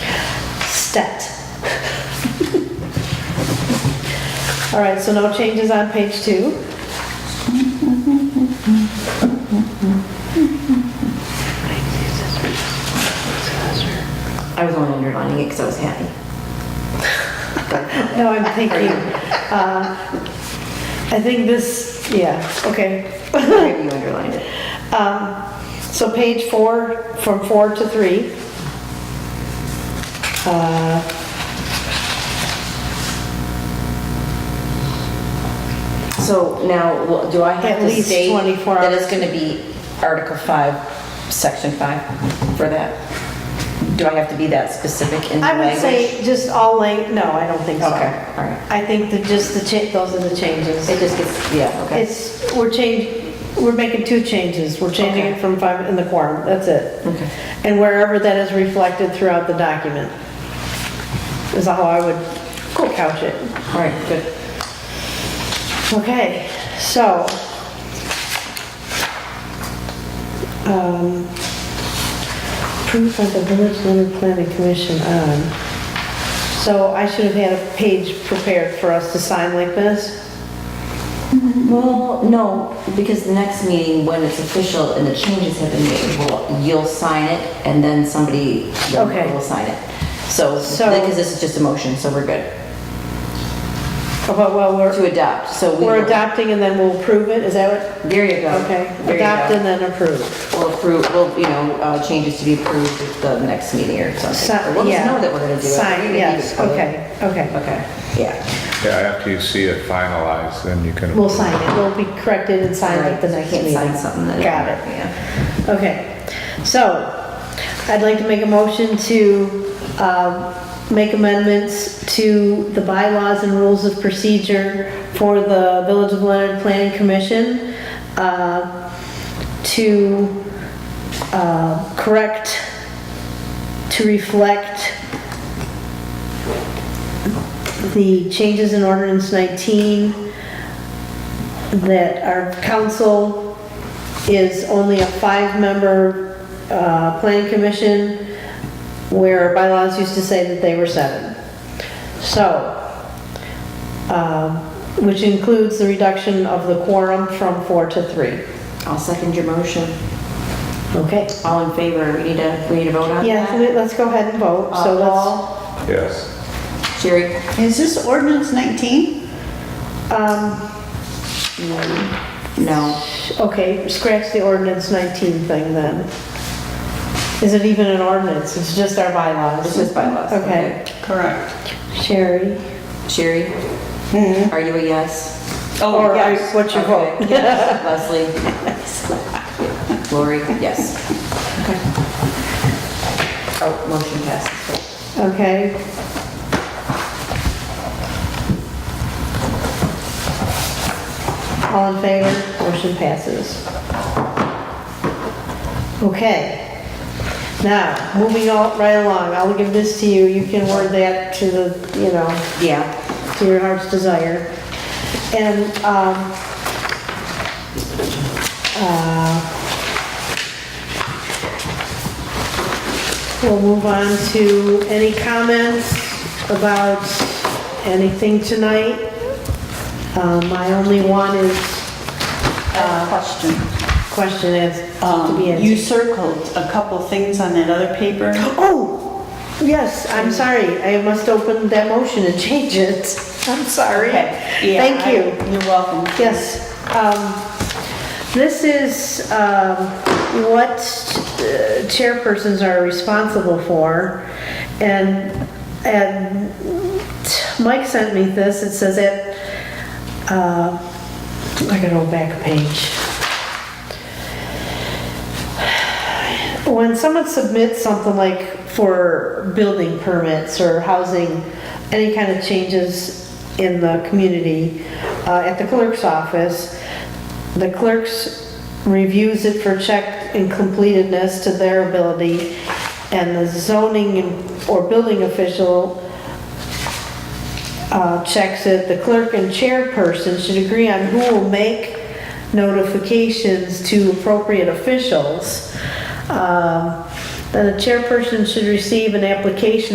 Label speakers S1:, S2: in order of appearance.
S1: set. All right, so no changes on page two.
S2: I was only underlining it because I was happy.
S1: No, I'm thinking, uh, I think this, yeah, okay.
S2: Maybe you underlined it.
S1: Um, So page four, from four to three. Uh,
S2: So now, well, do I have
S1: At
S2: to
S1: least
S2: state
S1: 24
S2: that it's
S1: hours.
S2: going to be Article 5, Section 5 for that? Do I have to be that specific in the
S1: I would
S2: language?
S1: say just all lang, no, I don't think so.
S2: Okay, all right.
S1: I think that just the cha, those are the changes.
S2: It just gets, yeah, okay.
S1: It's, we're change, we're making two changes. We're changing it
S2: Okay.
S1: from five in the quorum, that's it.
S2: Okay.
S1: And wherever that is reflected throughout the document is how I would couch it.
S2: All right, good.
S1: Okay, so. um, Approved by the Village Limited Planning Commission on. So I should have had a page prepared for us to sign like this?
S2: Well, no, because the next meeting, when it's official and the changes have been made, well, you'll sign it and then somebody
S1: Okay.
S2: will sign it. So,
S1: So-
S2: because this is just a motion, so we're good.
S1: Oh, But, well, we're,
S2: To adopt, so we.
S1: we're
S2: will-
S1: adopting and then we'll approve it, is that what?
S2: There you go.
S1: Okay,
S2: There you go.
S1: adopt and then approve.
S2: We'll approve, we'll, you know, uh, changes to be approved at the next meeting or something.
S1: Sign-
S2: We'll just
S1: yeah.
S2: know that we're gonna do it. We
S1: Sign,
S2: can
S1: yes,
S2: do it.
S1: okay, okay.
S2: Okay, yeah.
S3: Yeah, after you see it finalized, then you can.
S1: We'll sign it, we'll be corrected and signed at the
S2: Right,
S1: next
S2: can't
S1: meeting.
S2: Sign something that.
S1: Got it.
S2: Yeah.
S1: Okay, so I'd like to make a motion to um, make amendments to the bylaws and rules of procedure for the Village of Leonard Planning Commission uh, to uh, correct, to reflect the changes in ordinance 19 that our council is only a five-member uh, planning commission, where bylaws used to say that they were seven. So, um, which includes the reduction of the quorum from four to three.
S2: I'll second your motion.
S1: Okay.
S2: All in favor, we need to, we need to vote on that?
S1: Yeah, so let- let's go ahead and vote, so let's,
S2: Uh, Paul,
S3: Yes.
S2: Jerry,
S4: Is this ordinance 19?
S1: um,
S2: no.
S1: okay, scratch the ordinance 19 thing then. Is it even an ordinance? It's just our
S2: It's
S1: bylaws.
S2: just bylaws.
S1: Okay.
S4: Correct.
S1: Sherry?
S2: Sherry, are you a yes?
S4: Oh,
S1: Or I- Mm-hmm. what's your vote?
S2: Okay. Yes. Leslie? Lori, yes. Okay. Oh, motion passes.
S1: Okay. All in favor? Motion passes. Okay. Now, moving on right along, I'll give this to you, you can word that to the, you know,
S2: Yeah.
S1: to your heart's desire. And, um, uh, we'll move on to any comments about anything tonight. Uh, my only one is
S4: Question.
S1: question is to
S4: Um,
S1: be
S4: You
S1: answered.
S4: circled a couple things on that other paper.
S1: Oh, yes, I'm sorry, I must open that motion and change it. I'm sorry.
S4: Yeah,
S1: Thank
S4: I-
S1: you.
S4: You're welcome.
S1: Yes, um, this is, um, what uh, chairpersons are responsible for. And, and Mike sent me this, it says it, uh, I gotta go back a page. when someone submits something like for building permits or housing, any kind of changes in the community, uh, at the clerk's office, the clerk's reviews it for check and completedness to their ability, and the zoning or building official uh, checks it, the clerk and chairperson should agree on who will make notifications to appropriate officials. Um, Then the chairperson should receive an application